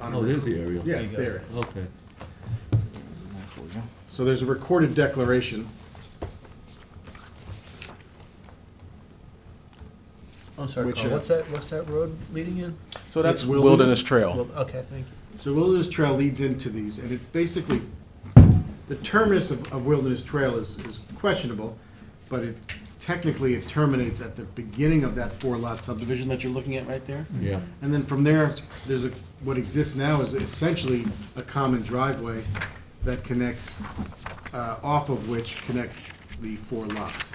on a Oh, there's the aerial. Yeah, there it is. Okay. So there's a recorded declaration. I'm Oh, sorry, Which, Carl, uh, what's that, what's that road leading in? So that's Wilderness Trail. Well, Okay, thank you. So Wilderness Trail leads into these, and it basically, the terminus of, of Wilderness Trail is, is questionable, but it, technically, it terminates at the beginning of that four-lot subdivision that you're looking at right there. Mm-hmm. Yeah. And then from there, there's a, what exists now is essentially a common driveway that connects, uh, off of which connect the four lots.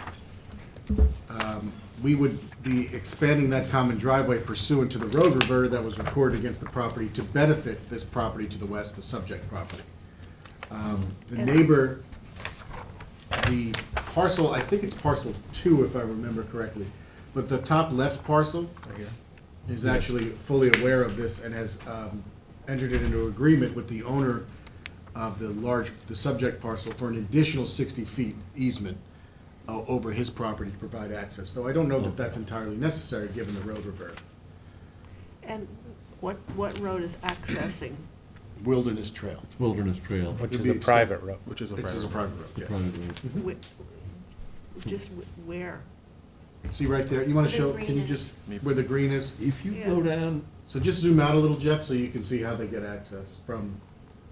Um, We would be expanding that common driveway pursuant to the road reverter that was recorded against the property to benefit this property to the west, the subject property. Um, The neighbor the parcel, I think it's parcel two, if I remember correctly, but the top left parcel is actually fully aware of this and has um, entered it into agreement with the owner of the large, the subject parcel for an additional sixty feet easement uh, over his property to provide access, though I don't know that that's entirely necessary, given the road revert. And what, what road is accessing? Wilderness Trail. Wilderness Trail. Which It'll is be a extended. private road. Which is a It's a private. private road, The yes. private road. Wh- Just wh- where? See right there, you wanna The show, can you green. just, where the green is? If you Yeah. go down, So just zoom out a little, Jeff, so you can see how they get access from,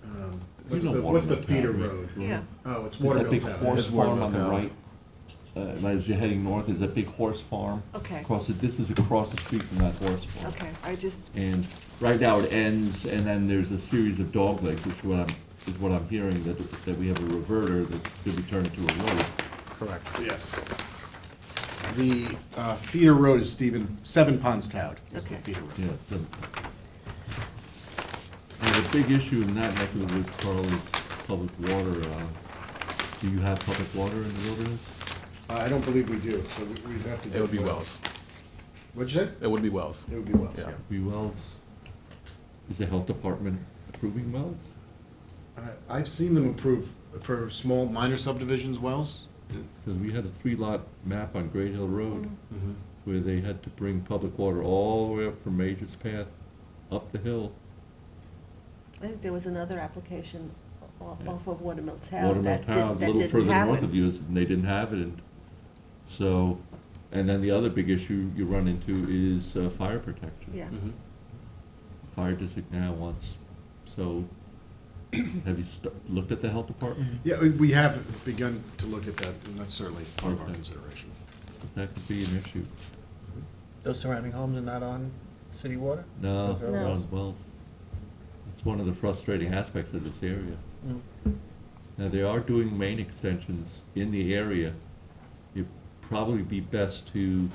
um, what's know the, what's the Watermill feeder Town, right? road? Yeah, Oh, it's there's that Watermill big Town. horse It's Watermill farm on the Town. right. Uh, and as you're heading north, there's that big horse farm. Okay. Across it, this is across the street from that horse farm. okay, I just, And right now it ends, and then there's a series of dog legs, which what I'm, is what I'm hearing, that, that we have a reverter that could be turned into a road. Correct. Yes. The uh, feeder road is Stephen, Seven Ponds Town is the Okay. feeder road. Yeah, so. And the big issue in that neck of the woods, Carl, is public water. uh, Do you have public water in the wilderness? Uh, I don't believe we do, so we- we'd have to. It would be get- Wells. What'd you say? It would be Wells. It would be wells, yeah. Yeah. We wells, is the health department approving wells? I- Uh, I've seen them approve for small, minor subdivisions wells. Because we had a three-lot map on Great Hill Road Mm-hmm. where they had to bring public water all the way up from Major's Path up the hill. I think there was another application o- Yeah. off of Watermill Town Watermill that Town, did- a that little didn't further north of happen. you, is- and they didn't have it. and So, and then the other big issue you run into is uh, fire protection. Yeah, Mm-hmm. fire district now wants, so, have you stu- looked at the health department? Yeah, we- we have begun to look at that, and that's certainly part of our Okay. consideration. 'Cause that could be an issue. Those surrounding homes are not on city water? No, Those are No. well, well, it's one of the frustrating aspects of this area. Mm. Now, they are doing main extensions in the area. It'd probably be best to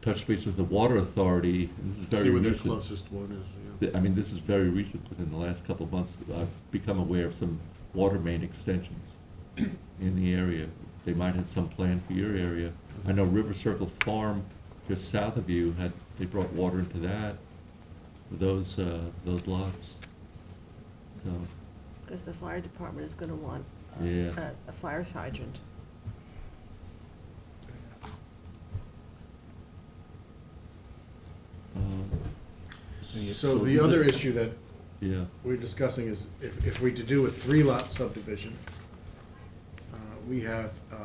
touch base with the water authority, this is See very where their recent. closest one is, yeah. Th- I mean, this is very recent, within the last couple of months, I've become aware of some water main extensions in the area. They might have some plan for your area. I know River Circle Farm, just south of you, had, they brought water into that, those, uh, those lots. So, because the fire department is gonna want uh, Yeah. a, a fire hydrant. um, So the other issue that Yeah, we're discussing is if, if we to do a three-lot subdivision, uh, we have uh,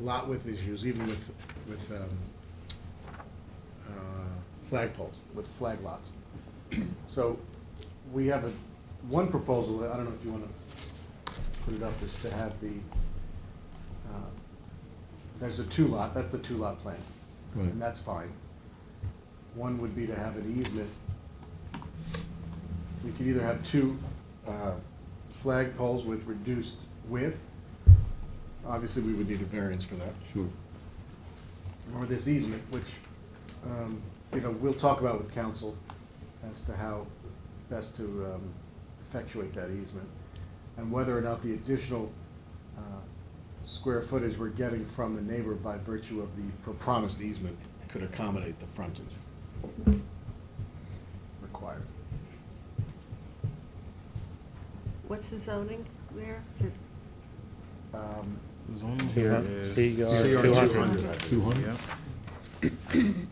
lot width issues, even with, with um, uh, flagpoles, with flag lots. So we have a, one proposal, I don't know if you want to put it up, is to have the, uh, there's a two-lot, that's the two-lot plan. Right. And that's fine. One would be to have an easement we could either have two uh, flag poles with reduced width, obviously we would need a variance for that, sure. or this easement, which, um, you know, we'll talk about with council as to how best to um, effectuate that easement, and whether or not the additional uh, square footage we're getting from the neighbor by virtue of the pro- promised easement could accommodate the frontage required. What's the zoning there? Is it Um, Here, is- CR CR 200. 200. Two hundred? Yeah.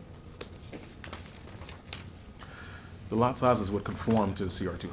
The lot sizes would conform to CR two hundred.